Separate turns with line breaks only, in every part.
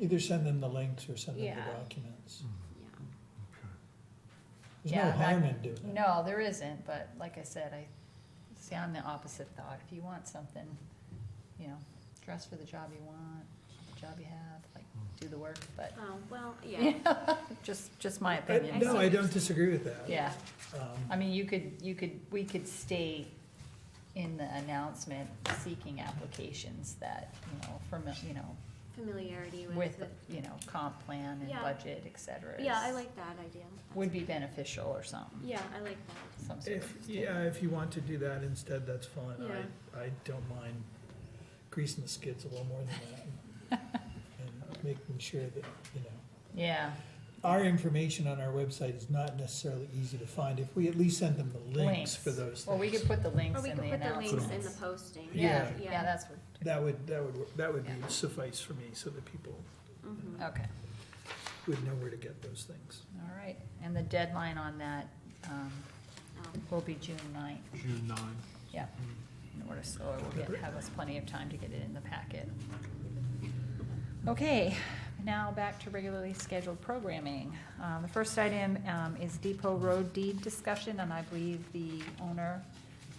Either send them the links or send them the
Yeah.
documents.
yeah.
There's no
Yeah, that-
harm in doing it.
No, there isn't, but like I said, I, see, I'm the opposite thought. If you want something, you know, dress for the job you want, the job you have, like,
Hmm.
do the work, but,
Oh, well, yeah.
just, just my
I-
opinion.
No,
so-
I don't disagree with that.
Yeah,
Um,
I mean, you could, you could, we could state in the announcement, seeking applications that, you know, from, you know,
Familiarity with
with,
the,
you know, comp plan and
Yeah.
budget, et cetera.
yeah, I
is-
like that idea. That's-
Would be beneficial or something,
Yeah, I like that.
some sort of.
If,
statement.
yeah, if you want to do that instead, that's fine.
Yeah.
I, I don't mind greasing the skids a little more than that. And making sure that, you know,
Yeah,
our information on our website is not necessarily easy to find. If we at least send them the links for those
Well, we could
things,
put the
Or
links
we
in the
could put the links in the
announcements.
posting.
Yeah,
Yeah.
yeah, that's what,
that would, that would, wor- that would be
Yeah.
suffice for me so that people
Mhm.
okay,
would know where to get those things.
all right. And the deadline on that um,
Um,
will be June ninth,
June nine.
yeah. In order, so it will get, have us plenty of time to get it in the packet. Okay, now back to regularly scheduled programming. Um, The first item um, is Depot Road deed discussion, and I believe the owner,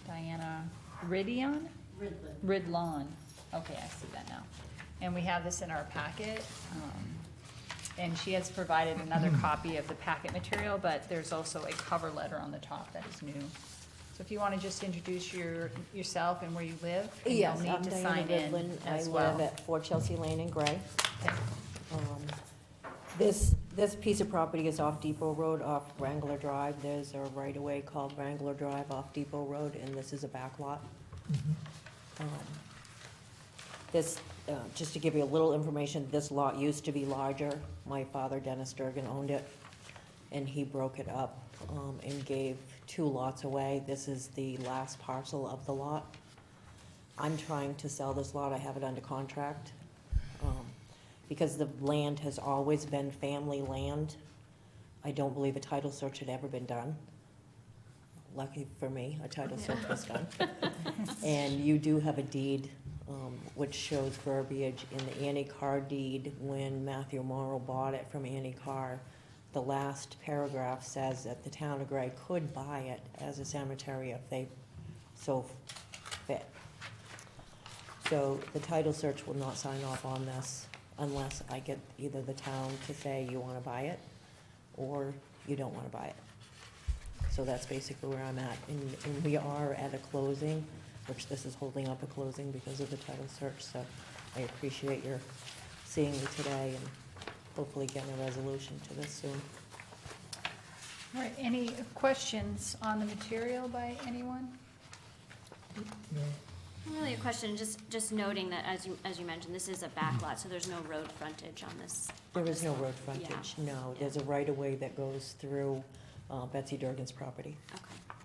Diana Ridion?
Ridland.
Ridlon, okay, I see that now. And we have this in our packet, um, and she has provided another copy of the packet material, but there's also a cover letter on the top that is new. So if you wanna just introduce your, yourself and where you live, and you'll
Yes,
need
I'm
to
Diana
sign in
Ridlin. I
as
live
well.
at Four Chelsea Lane in Gray.
Okay.
Um, This, this piece of property is off Depot Road, off Wrangler Drive. There's a right-of-way called Wrangler Drive off Depot Road, and this is a back lot. Um, This, uh, just to give you a little information, this lot used to be larger. My father, Dennis Durgan, owned it, and he broke it up um, and gave two lots away. This is the last parcel of the lot. I'm trying to sell this lot, I have it under contract, um, because the land has always been family land. I don't believe a title search had ever been done. Lucky for me, a title search was done. And you do have a deed, um, which shows verbiage in the Annie Carr deed, when Matthew Morrow bought it from Annie Carr. The last paragraph says that the town of Gray could buy it as a cemetery if they so fit. So the title search will not sign off on this unless I get either the town to say you wanna buy it or you don't wanna buy it. So that's basically where I'm at, and, and we are at a closing, which this is holding up a closing because of the title search, so I appreciate your seeing me today and hopefully getting a resolution to this soon.
All right, any questions on the material by anyone?
No?
not Really a question, just, just noting that as you, as you mentioned, this is a back lot, so there's no road frontage on this.
There is no road
Yeah.
frontage, no, there's a right-of-way that goes through uh, Betsy Durgan's property,
Okay,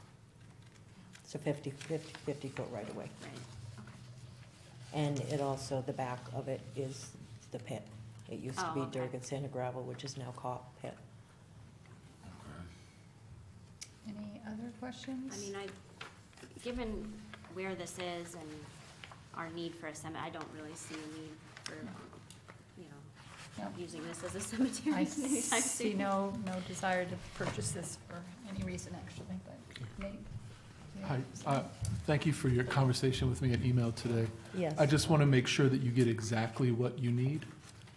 it's a 50 50 50-foot right-of-way.
right, okay.
And it also, the back of it is the pit. It used to
Oh,
be
okay.
Durgan Sand and Gravel, which is now called Pit.
Any other questions?
I mean, I, given where this is and our need for a cemetery, I don't really see a need for, you know,
No.
using this as a cemetery
I
anytime
see
soon.
no, no desire to purchase this for any reason, actually, but Nate? you have
Hi,
something?
uh, thank you for your conversation with me and email today.
Yes.
I just want to make sure that you get exactly what you need.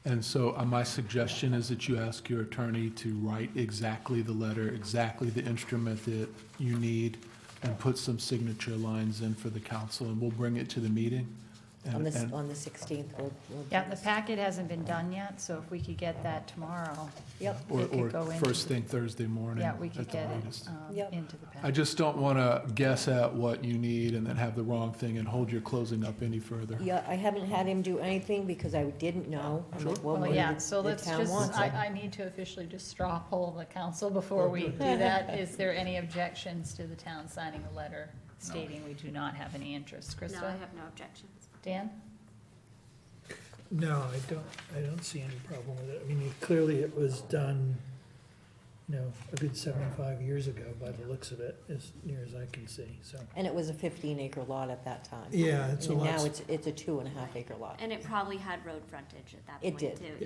And so uh, my suggestion is that you ask your attorney to write exactly the letter, exactly the instrument that you need, and put some signature lines in for the council, and we'll bring it to the meeting. And-
On the,
and-
on the sixteenth, or.
Yeah, the packet hasn't been done yet, so if we could get that tomorrow,
Yep,
Or,
It could
or
go into
first
the-
thing Thursday morning
yeah, we
at
could
the
get
latest.
it um,
Yep.
into the
I
packet.
just don't want to guess at what you need and then have the wrong thing and hold your closing up any further.
yeah, I haven't had him do anything because I didn't know. I'm like, well,
Well,
what do
yeah,
the-
so
the
let's
town
just,
wants?
I, I need to officially just straw poll the council
Oh,
before we do that. Is there any objections to the town signing a letter stating we do not have any interest?
No, I
Krista?
have no objections.
Dan?
No, I don't, I don't see any problem with it. I mean, it- clearly it was done, you know, a good seventy-five years ago by the looks of it, as near as I can see, so.
And it was a fifteen acre lot at that time.
Yeah, it's a
And
lot.
Now it's, it's a two and a half acre lot.
And it probably had road frontage at that
It
point, too.
did.